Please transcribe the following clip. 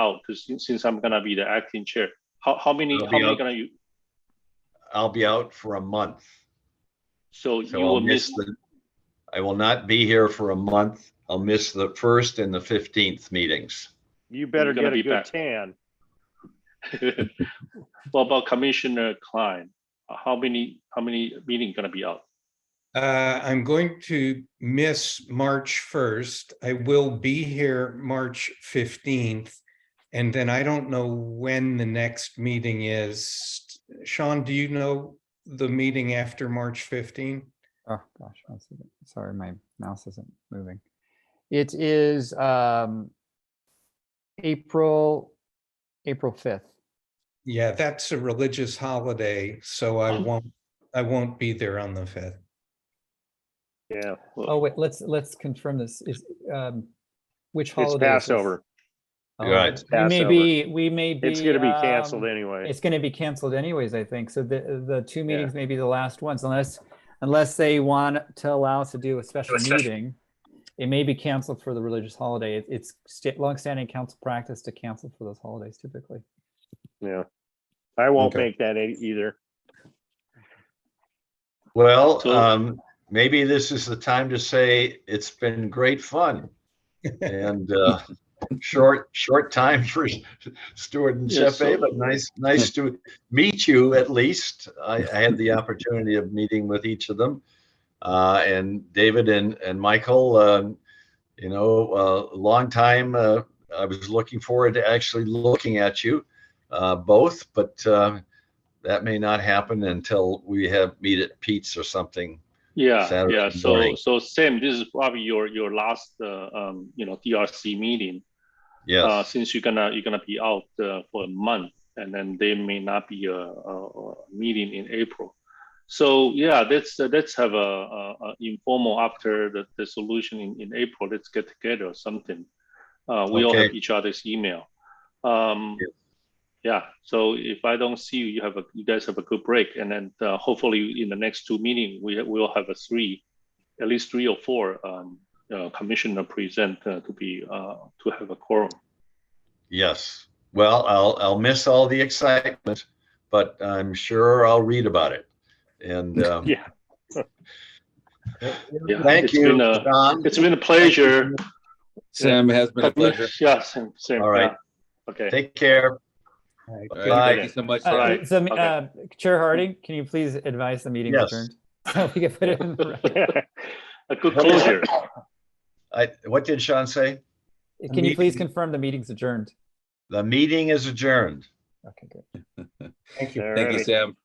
out because since I'm gonna be the acting chair, how, how many, I'll how be many out. gonna you, I'll be out for a month. so you So I'll will miss miss, the, I will not be here for a month. I'll miss the first and the fifteenth meetings. You better gonna get be a good back. tan. what about Commissioner Klein? How many, how many meeting gonna be out? Uh, I'm going to miss March first. I will be here March fifteenth. And then I don't know when the next meeting is. Sean, do you know the meeting after March fifteen? Oh gosh, one second. Sorry, my mouse isn't moving. It is um April, April fifth. Yeah, that's a religious holiday, so I won't, I won't be there on the fifth. Yeah, Oh wait, let's let's confirm this. Is um which holiday? it's is this? Passover. Oh, Right. It's We may Passover. be, we may be. It's gonna be canceled um, anyway. It's gonna be canceled anyways, I think. So the the two meetings may be the last ones unless unless they want to allow us to do a special meeting. It may be canceled for the religious holiday. It- It's sta- longstanding council practice to cancel for those holidays typically. Yeah. I won't Okay. make that e- either. Well, So- um, maybe this is the time to say it's been great fun. And, uh, short, short time for Stuart and Yes, Jeff, so- but nice, nice to meet you at least. I, I had the opportunity of meeting with each of them. Uh, and David and, and Michael, um, you know, uh, long time, uh, I was looking forward to actually looking at you, uh, both, but, uh, that may not happen until we have meet at Pete's or something. Yeah, Saturday yeah, so, morning. so Sam, this is probably your, your last, uh, um, you know, DRC meeting. Uh, Yes, since you're gonna, you're gonna be out, uh, for a month and then there may not be a, a, a meeting in April. So, yeah, let's, uh, let's have a, a, a informal after the, the solution in, in April, let's get together or something. Uh, we all Okay. have each other's email. Um, Yeah. yeah, so if I don't see you, you have a, you guys have a good break and then, uh, hopefully in the next two meeting, we, we'll have a three, at least three or four, um, uh, commissioner present uh, to be, uh, to have a quorum. yes. Well, I'll, I'll miss all the excitement, but I'm sure I'll read about it. And, um, Yeah. Yeah, thank it's been you, a- John. It's been a pleasure. Sam, it has been a pleasure. Yeah, same, same. All right. yeah. Okay. Take care. Okay, Bye. Thank you so much. Uh, Sam. Alright, So, okay. uh, Chair Harding, can you please advise the meeting Yes. adjourned? So we can put it in the record. A good closure. I, what did Sean say? Can you please meeting- confirm the meeting's adjourned? The meeting is adjourned. Okay, good. Thank you. Thank you, Alrighty. Sam.